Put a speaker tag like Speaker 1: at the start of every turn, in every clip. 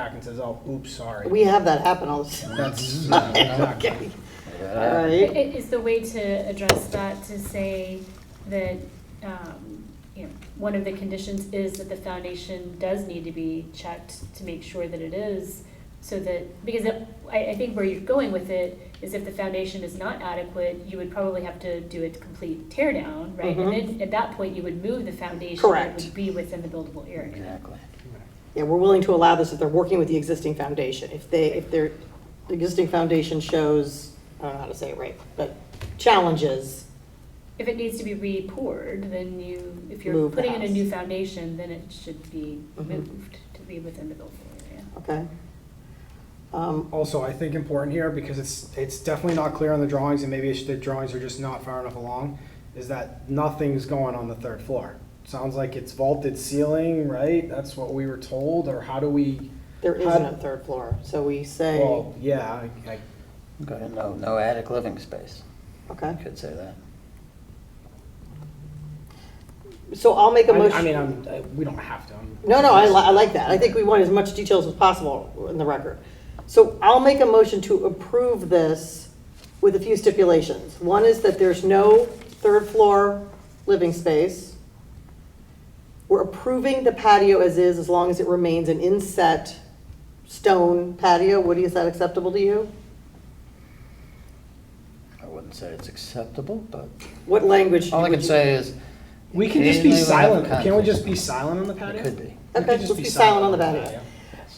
Speaker 1: back and says, oh, oops, sorry.
Speaker 2: We have that happen all the time.
Speaker 3: That's, uh,
Speaker 2: Okay, all
Speaker 4: I-
Speaker 2: right.
Speaker 4: Is the way to address that to say that, um, you know, one of the conditions is that the foundation does need to be checked to make sure that it is, so that, because it- I, I think where you're going with it is if the foundation is not adequate, you would probably have to do a complete tear down, right? And
Speaker 2: Mhm.
Speaker 4: then at that point, you would move the foundation.
Speaker 2: Correct.
Speaker 4: It would be within the buildable area.
Speaker 3: exactly.
Speaker 2: Yeah, we're willing to allow this if they're working with the existing foundation. If they, if their, the existing foundation shows, I don't know how to say it right, but challenges,
Speaker 4: If it needs to be re-poured, then you, if you're
Speaker 2: Move the
Speaker 4: putting in a
Speaker 2: house.
Speaker 4: new foundation, then it should be
Speaker 2: Mhm.
Speaker 4: moved to be within the buildable area.
Speaker 2: okay? Um,
Speaker 1: Also, I think important here, because it's, it's definitely not clear on the drawings, and maybe it's, the drawings are just not far enough along, is that nothing's going on the third floor. Sounds like it's vaulted ceiling, right? That's what we were told, or how do we,
Speaker 2: There isn't a third floor, so we say,
Speaker 1: well, yeah, I, I-
Speaker 3: Okay, No, no attic living space,
Speaker 2: okay?
Speaker 3: could say that.
Speaker 2: So I'll make a
Speaker 1: I,
Speaker 2: motion.
Speaker 1: I mean, I'm, I- we don't have to. I'm-
Speaker 2: No, no, I, li- I like that. I think we want as much details as possible in the record. So I'll make a motion to approve this with a few stipulations. One is that there's no third floor living space. We're approving the patio as is, as long as it remains an inset stone patio. Woody, is that acceptable to you?
Speaker 3: I wouldn't say it's acceptable, but
Speaker 2: What language?
Speaker 3: all I
Speaker 2: would
Speaker 3: can
Speaker 2: you-
Speaker 3: say is,
Speaker 1: We can just be
Speaker 3: Occasionally we'll have
Speaker 1: silent, can't we
Speaker 3: conflict.
Speaker 1: just be silent on the patio?
Speaker 3: it could be.
Speaker 1: We could
Speaker 2: Okay,
Speaker 1: just
Speaker 2: let's be silent on the patio.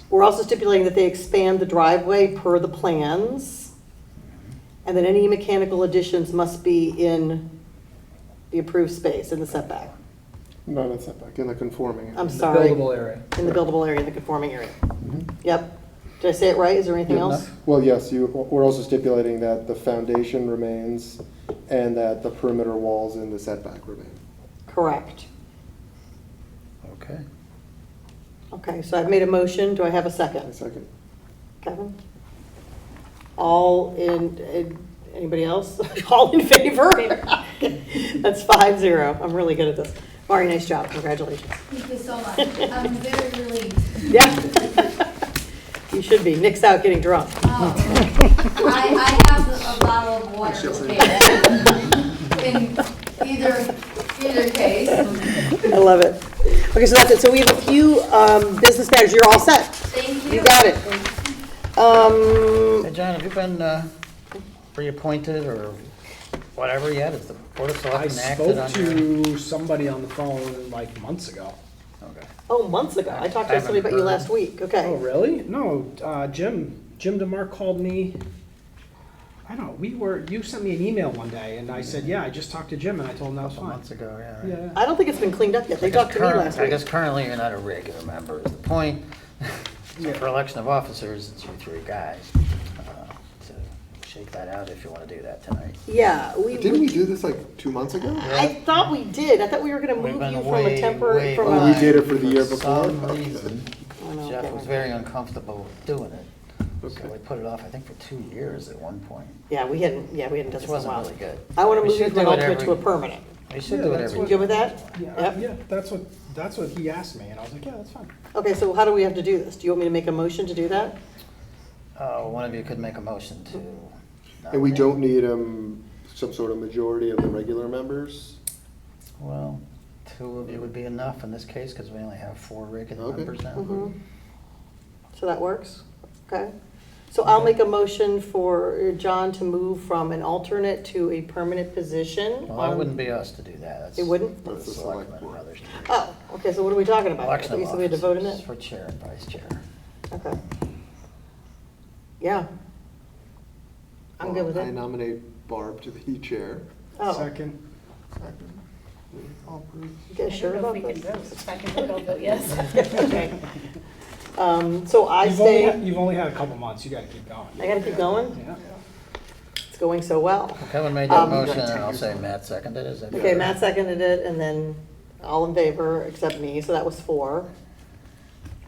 Speaker 2: We're also stipulating that they expand the driveway per the plans, and that any mechanical additions must be in the approved space, in the setback.
Speaker 5: Not in setback, in the conforming.
Speaker 2: I'm
Speaker 1: The
Speaker 2: sorry,
Speaker 1: Buildable area. Mm-hmm.
Speaker 2: in the buildable area, in the conforming area.
Speaker 3: Mhm.
Speaker 2: Yep. Did I say it right? Is there anything
Speaker 3: Good
Speaker 2: else?
Speaker 5: Well, yes, you, we're also stipulating that the foundation remains and that the perimeter walls in the setback remain.
Speaker 2: Correct.
Speaker 3: Okay,
Speaker 2: Okay, so I've made a motion. Do I have a
Speaker 5: A
Speaker 2: second?
Speaker 5: second.
Speaker 2: Kevin? All in, in- anybody else? All in favor? That's five zero. I'm really good at this. Mari, nice job. Congratulations.
Speaker 6: Thank you so much. I'm very relieved.
Speaker 2: Yeah. You should be. Nick's out getting drunk.
Speaker 6: Um, I, I have a bottle of water prepared. In either, either case.
Speaker 2: I love it. Okay, so that's it. So we have a few um, business matters. You're all set. Um,
Speaker 6: Thank you.
Speaker 2: You got it. Um,
Speaker 3: hey, John, have you been uh, reappointed or whatever yet? Has the Board of
Speaker 1: I
Speaker 3: Selectmen acted
Speaker 1: spoke
Speaker 3: on your?
Speaker 1: to somebody on the phone like months ago.
Speaker 3: Okay.
Speaker 2: oh, months ago. I talked to somebody about you last week.
Speaker 1: Oh,
Speaker 2: Okay.
Speaker 1: really? No, uh, Jim, Jim DeMar called me. I don't know, we were, you sent me an email one day and I said, yeah, I just talked to Jim and I told him that was
Speaker 3: Couple
Speaker 1: fine.
Speaker 3: months ago, yeah. right.
Speaker 1: Yeah.
Speaker 2: I don't think it's been cleaned up yet. They talked to me
Speaker 3: Current-
Speaker 2: last
Speaker 3: I guess
Speaker 2: week.
Speaker 3: currently you're not a regular member is the point.
Speaker 1: Yeah.
Speaker 3: For election of officers, it's you three guys. Uh, So shake that out if you want to do that tonight.
Speaker 2: Yeah, we,
Speaker 5: Didn't we
Speaker 2: we-
Speaker 5: do this like two months ago?
Speaker 2: I thought we did. I thought we were gonna
Speaker 3: We've
Speaker 2: move
Speaker 3: been
Speaker 2: you from
Speaker 3: way,
Speaker 2: a temporary,
Speaker 3: way
Speaker 2: from
Speaker 5: Oh, we
Speaker 2: a.
Speaker 3: behind
Speaker 5: did it for the year before?
Speaker 3: some
Speaker 5: Okay.
Speaker 3: reason.
Speaker 2: I know,
Speaker 3: Jeff
Speaker 2: okay.
Speaker 3: was very uncomfortable doing it. So
Speaker 5: Okay.
Speaker 3: we put it off, I think, for two years at one point.
Speaker 2: Yeah, we hadn't, yeah, we hadn't done
Speaker 3: This
Speaker 2: this in a
Speaker 3: wasn't
Speaker 2: while.
Speaker 3: really good.
Speaker 2: I wanna
Speaker 3: We
Speaker 2: move you
Speaker 3: should
Speaker 2: from an
Speaker 3: do it
Speaker 2: alternate to
Speaker 3: every-
Speaker 2: a permanent.
Speaker 3: We should
Speaker 1: Yeah,
Speaker 3: do it
Speaker 1: that's
Speaker 3: every.
Speaker 2: You
Speaker 1: what-
Speaker 2: good with that?
Speaker 1: Yeah,
Speaker 2: Yep.
Speaker 1: yeah, that's what, that's what he asked me and I was like, yeah, that's fine.
Speaker 2: Okay, so how do we have to do this? Do you want me to make a motion to do that?
Speaker 3: Uh, One of you could make a motion to.
Speaker 5: And we
Speaker 3: nominate.
Speaker 5: don't need, um, some sort of majority of the regular members?
Speaker 3: Well, two of you would be enough in this case because we only have four regular
Speaker 5: Okay.
Speaker 3: members now.
Speaker 2: Mhm. So that works? Okay. So I'll make a motion for John to move from an alternate to a permanent position.
Speaker 3: Well, that
Speaker 2: on-
Speaker 3: wouldn't be us to do that. That's
Speaker 2: It wouldn't?
Speaker 3: for The
Speaker 5: That's the
Speaker 3: selectmen
Speaker 5: select
Speaker 3: and
Speaker 5: board.
Speaker 3: others. to do.
Speaker 2: Oh, okay, so what are we talking about?
Speaker 3: Election
Speaker 2: Okay,
Speaker 3: of
Speaker 2: So we had to vote in
Speaker 3: officers
Speaker 2: it?
Speaker 3: For chair and vice chair.
Speaker 2: Okay. Yeah. I'm good with
Speaker 5: I
Speaker 2: it.
Speaker 5: nominate Barb to be chair.
Speaker 2: Oh,
Speaker 1: Second,
Speaker 2: you guys sure
Speaker 4: I don't know
Speaker 2: about
Speaker 4: if we can
Speaker 2: this?
Speaker 4: vote. If I can vote, I'll vote yes.
Speaker 2: Okay. Um, so I
Speaker 1: you've only,
Speaker 2: say,
Speaker 1: had- you've only had a couple months, you gotta keep going.
Speaker 2: I gotta keep going?
Speaker 1: Yeah.
Speaker 2: It's going so well.
Speaker 3: Kevin made that
Speaker 2: Um,
Speaker 3: motion and I'll say Matt seconded it. Is that
Speaker 2: Okay,
Speaker 3: correct?
Speaker 2: Matt seconded it, and then all in favor except me, so that was four.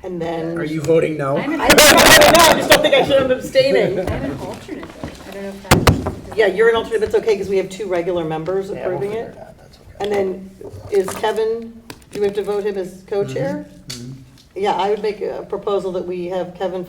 Speaker 2: And then.
Speaker 1: Are you voting no?
Speaker 4: I'm an,
Speaker 2: I don't know, I just don't think I should have abstaining.
Speaker 4: I'm an alternate though. I don't know if that.
Speaker 2: Yeah, you're an alternate, but it's okay, because we have two regular members
Speaker 3: Yeah, we'll
Speaker 2: approving
Speaker 3: figure
Speaker 2: it.
Speaker 3: out. That's okay.
Speaker 2: And then, is Kevin, do we have to vote him as co-chair?
Speaker 3: Mhm.
Speaker 2: yeah, I would make a proposal that we have Kevin